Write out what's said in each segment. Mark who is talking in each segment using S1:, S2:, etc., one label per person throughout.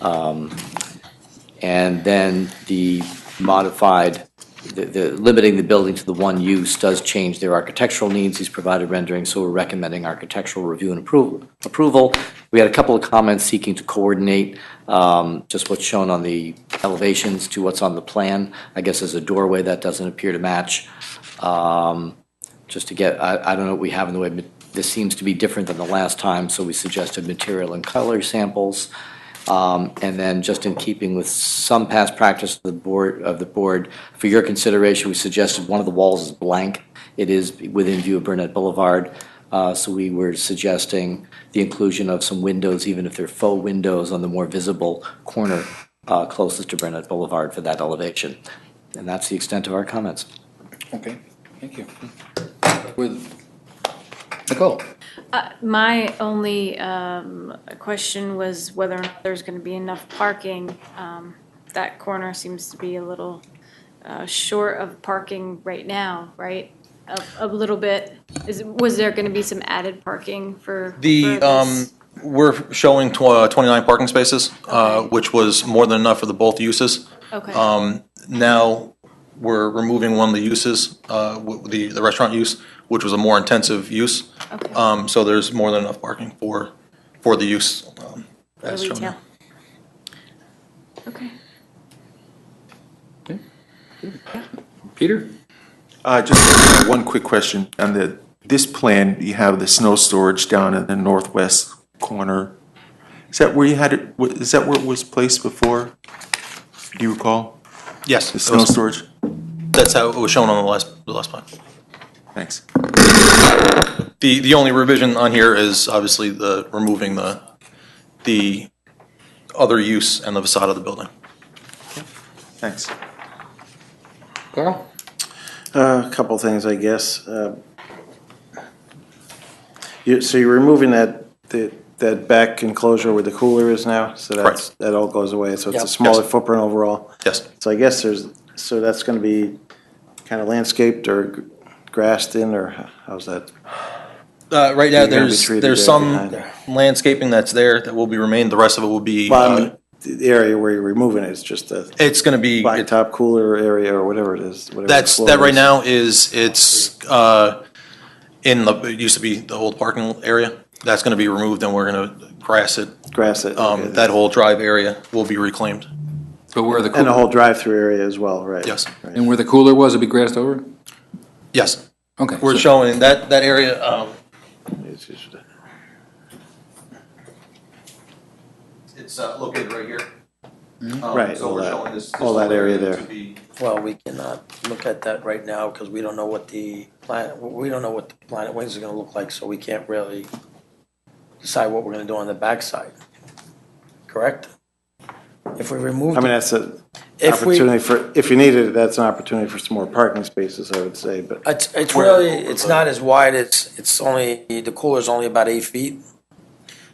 S1: Um, And then the modified, the, the, limiting the building to the one use does change their architectural needs. He's provided rendering, so we're recommending architectural review and approval. Approval. We had a couple of comments seeking to coordinate um, just what's shown on the elevations to what's on the plan. I guess as a doorway, that doesn't appear to match. Um, Just to get, I, I don't know what we have in the way, but this seems to be different than the last time, so we suggested material and color samples. Um, And then, just in keeping with some past practice of the board, of the board, for your consideration, we suggested one of the walls is blank. It is within view of Burnett Boulevard, uh, so we were suggesting the inclusion of some windows, even if they're faux windows, on the more visible corner uh, closest to Burnett Boulevard for that elevation. And that's the extent of our comments.
S2: Okay, thank you. With Nicole?
S3: Uh, My only um, question was whether or not there's going to be enough parking. Um, That corner seems to be a little uh, short of parking right now, right? A- A little bit. Is, was there going to be some added parking for? for
S4: The,
S3: this?
S4: um, we're showing tw- uh, 29 parking spaces, uh,
S3: Okay.
S4: which was more than enough for the both uses.
S3: Okay.
S4: Um, Now, we're removing one of the uses, uh, w- the the restaurant use, which was a more intensive use.
S3: Okay.
S4: Um, So there's more than enough parking for, for the use. um,
S3: For
S4: as shown
S3: retail.
S4: there.
S3: Okay.
S2: Peter?
S5: Uh, Just one quick question. On the, this plan, you have the snow storage down in the northwest corner. Is that where you had it, wa- is that where it was placed before? Do you recall?
S4: Yes,
S5: The
S4: it
S5: snow
S4: was-
S5: storage?
S4: that's how it was shown on the last, the last plan.
S5: Thanks.
S4: The, the only revision on here is obviously the, removing the, the other use and the facade of the building.
S5: Thanks.
S2: Carl?
S6: Uh, A couple things, I guess. Uh, you- So you're removing that, that- that back enclosure where the cooler is now? So that's,
S4: Correct.
S6: that all goes away, so it's a smaller
S4: Yes.
S6: footprint overall?
S4: Yes.
S6: So I guess there's, so that's going to be kind of landscaped or g- grassed in, or h- how's that?
S4: Uh, right now,
S6: You're gonna be
S4: there's,
S6: treated
S4: there's
S6: there
S4: some
S6: behind.
S4: landscaping that's there that will be remained, the rest of it will be, uh,
S6: Bottom, the area where you're removing it is just a
S4: it's gonna be,
S6: blacktop cooler area or whatever it is, whatever. the
S4: that's,
S6: floor
S4: that right
S6: is.
S4: now is, it's, uh, in the, it used to be the old parking area, that's gonna be removed and we're gonna grass it.
S6: Grass it. okay.
S4: Um, that whole drive area will be reclaimed,
S2: But where the
S6: And the
S2: cooler,
S6: whole drive-through area as well, right?
S4: yes,
S2: and where the cooler was, it'd be grassed over?
S4: yes.
S2: Okay.
S4: We're
S2: so-
S4: showing that, that area, um,
S6: It's just-
S4: It's uh, located right here. Um,
S6: Mm-hmm. Right,
S4: So
S6: all
S4: we're
S6: that-
S4: showing this.
S6: all
S4: this
S6: that area there.
S4: to be-
S7: Well, we cannot look at that right now because we don't know what the planet, we don't know what the Planet Wings is gonna look like, so we can't really decide what we're gonna do on the backside. Correct? If we remove,
S6: I mean, that's a
S7: if we,
S6: opportunity for, if you needed it, that's an opportunity for some more parking spaces, I would say, but
S7: it's, it's really, it's not as wide, it's, it's only, the cooler's only about eight feet.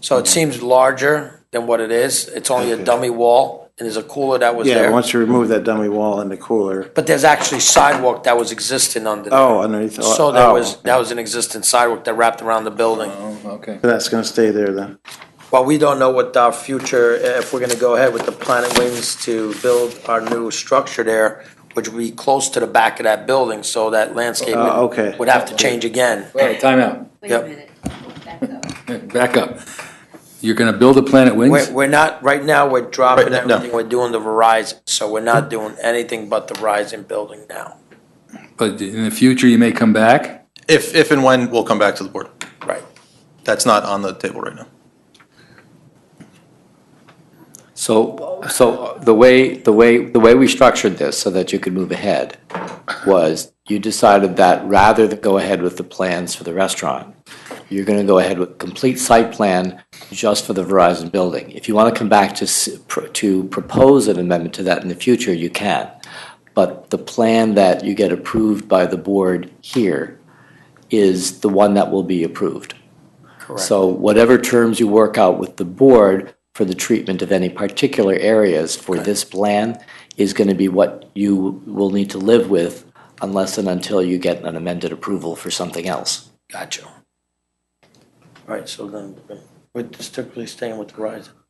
S7: So it seems larger than what it is. It's only a
S6: Mm-hmm. Okay.
S7: dummy wall and there's a cooler that was
S6: yeah,
S7: there.
S6: once you remove that dummy wall and the cooler,
S7: But there's actually sidewalk that was existing under there.
S6: oh, underneath. oh,
S7: So that
S6: oh,
S7: was,
S6: okay.
S7: that was an existing sidewalk that wrapped around the building.
S2: Oh, okay.
S6: That's gonna stay there then.
S7: Well, we don't know what our future, if we're gonna go ahead with the Planet Wings to build our new structure there, which would be close to the back of that building, so that landscape
S6: Oh, okay.
S7: would have to change again.
S2: All right, timeout.
S8: Wait a
S7: Yep.
S8: minute, back up.
S2: Back up. You're gonna build a Planet Wings?
S7: We're, we're not, right now, we're dropping
S4: Right, no.
S7: everything, we're doing the Verizon, so we're not doing anything but the Verizon building now.
S2: But in the future, you may come back?
S4: If, if and when, we'll come back to the board.
S7: Right.
S4: That's not on the table right now.
S1: So, so the way, the way, the way we structured this so that you could move ahead was you decided that rather than go ahead with the plans for the restaurant, you're going to go ahead with complete site plan just for the Verizon building. If you want to come back to, s- pro- to propose an amendment to that in the future, you can. But the plan that you get approved by the board here is the one that will be approved. So whatever terms you work out with the board for the treatment of any particular areas for this plan is going to be what you will need to live with unless and until you get an amended approval for something else.
S7: Gotcha. All right, so then, we're strictly staying with Verizon.